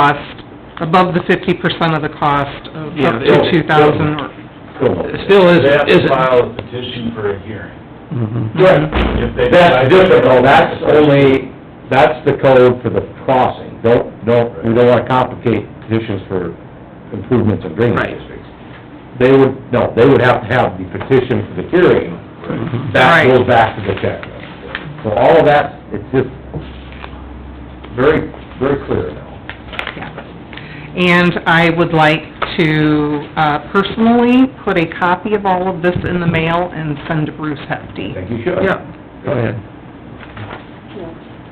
cost, above the fifty percent of the cost of up Yeah, to it's- two thousand or... It still They isn't, have to isn't. file a petition for a hearing. Right, If they that's decide- different, though, that's only, that's the code for the crossing. Don't, don't, we don't wanna complicate petitions for improvements in drainage Right. districts. They would, no, they would have to have the petition for the hearing, Right. that Right. goes back to the checklist. So all of that, it's just very, very clear now. And I would like to uh, personally put a copy of all of this in the mail and send to Bruce I Hefty. think you should. Go ahead.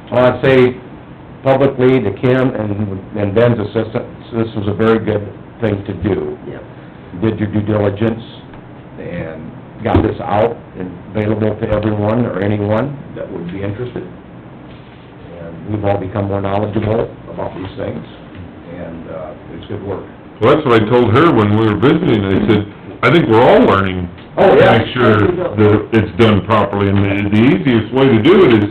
I wanna say publicly to Kim and, and Ben's assistant, this was a very good thing to do. did your due diligence and got this out and available to everyone or anyone that would be interested. And we've all become more knowledgeable about these things, and, uh, it's good work. Well, that's what I told her when we were visiting, I said, I think we're all learning. Oh, yeah. To make sure that it's done properly, and the, the easiest way to do it is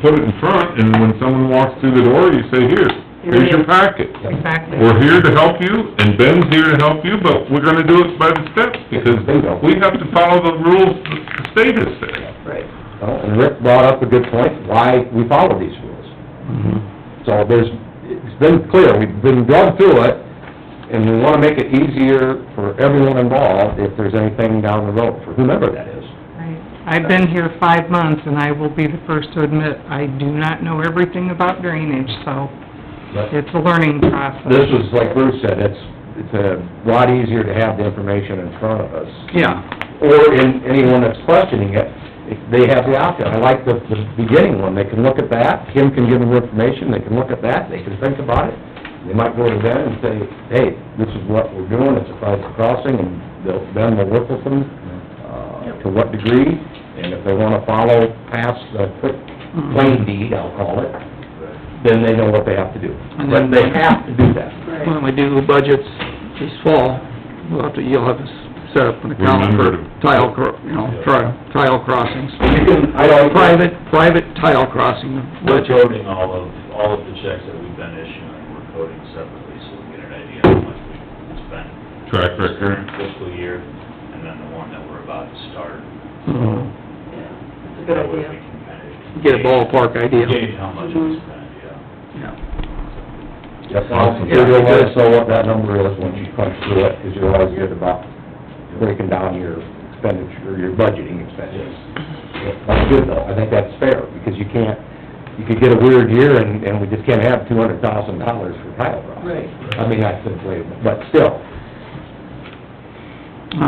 put it in front, and when someone walks through the door, you say, here, here's your packet. Exactly. We're here to help you, and Ben's here to help you, but we're gonna do it by the steps, because Bingo. we have to follow the rules the state has set. Well, and Rick brought up a good point, why we follow these rules. So there's, it's been clear, we've been going through it, and we wanna make it easier for everyone involved if there's anything down the road, for whomever that is. Right. I've been here five months, and I will be the first to admit, I do not know everything about drainage, so But- it's a learning This process. was, like Bruce said, it's, it's a lot easier to have the information in front of us. Yeah, Or in, anyone that's questioning it, if they have the option. I like the, the beginning one, they can look at that, Kim can give them information, they can look at that, they can think about it. They might go to Ben and say, hey, this is what we're doing, it's a private crossing, and they'll, Ben will work with them, uh, to what degree, and if they wanna follow past the quick Mm-hmm. claim deed, I'll call it, then they know what they have to do. And But then- they have to do that. when we do budgets this fall, we'll have to, you'll have to s- set up an account for Remember to- tile, cro- you know, tri- tile crossings. You can, I don't, Private, private tile crossing We're budget. coding all of, all of the checks that we've been issuing, we're coding separately, so we get an idea of how much we've spent. Track this record. current fiscal year, and then the one that we're about to start. It's a good That way we idea. Mm-hmm. can kind of Get a ballpark idea. Gauge how much we spent, yeah. Yeah. Yes, I'll, you'll let us know what that number is once you crunch through it, because you're always good about breaking down your expenditure, your budgeting expenses. That's good though, I think that's fair, because you can't, you could get a weird year and, and we just can't have two hundred thousand dollars for tile rock. Right. I mean, that's inflatable, but still,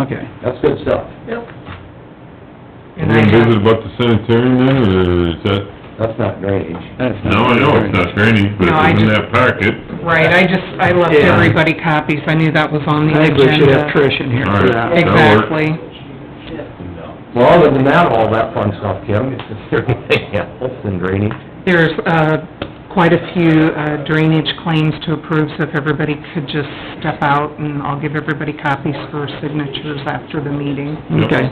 Okay. that's good stuff. Yep. We're And I gonna visit have, about the sanitarium then, or is that, That's not drainage. That's not no, I know it's not training, but No, I it was in just- that packet. right, I just, I left Yeah. everybody copies, I knew that was on the I think agenda. we should have Trish in here for All right. that. Exactly. No. Well, other than that, all that fun stuff, Kim, it's just everything else in drainage. There's uh, quite a few uh, drainage claims to approve, so if everybody could just step out, and I'll give everybody copies for signatures after the meeting. Okay.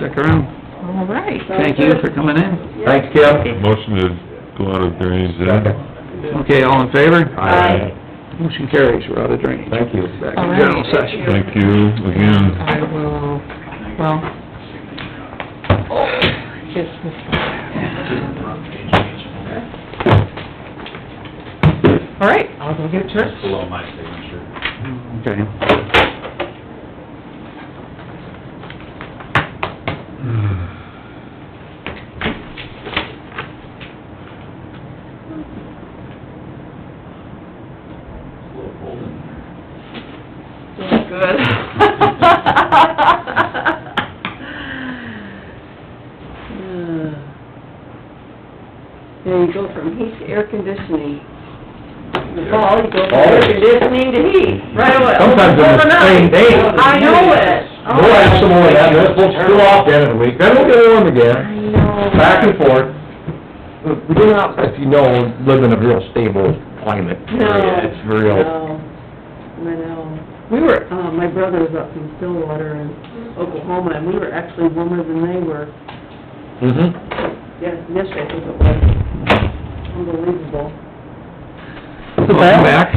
Stick around. All right. Thank you for coming in. Thanks, Kim. Motion to go out of drainage then. Okay, all in favor? Aye. Motion carries, we're out of drainage. Thank you. Back All in right. general session. Thank you again. I will, well... Yes, Miss- All right, I'll go get yours. That's below my signature. Okay. It's a little cold in there. Feeling good. Now you go from heat to air conditioning. In the fall, you go from air Always. conditioning to heat, right away. Sometimes on the same day. I know it. We'll have some more of that, let's pull screw off the end of the week, then we'll get warm I again, know. back and forth. We do not, if you know, live in a real stable climate. No. It's real, No, I know. We were, uh, my brother was up in Stillwater in Oklahoma, and we were actually warmer than they were. mhm, Yes, yesterday I think it was. Unbelievable. Welcome back.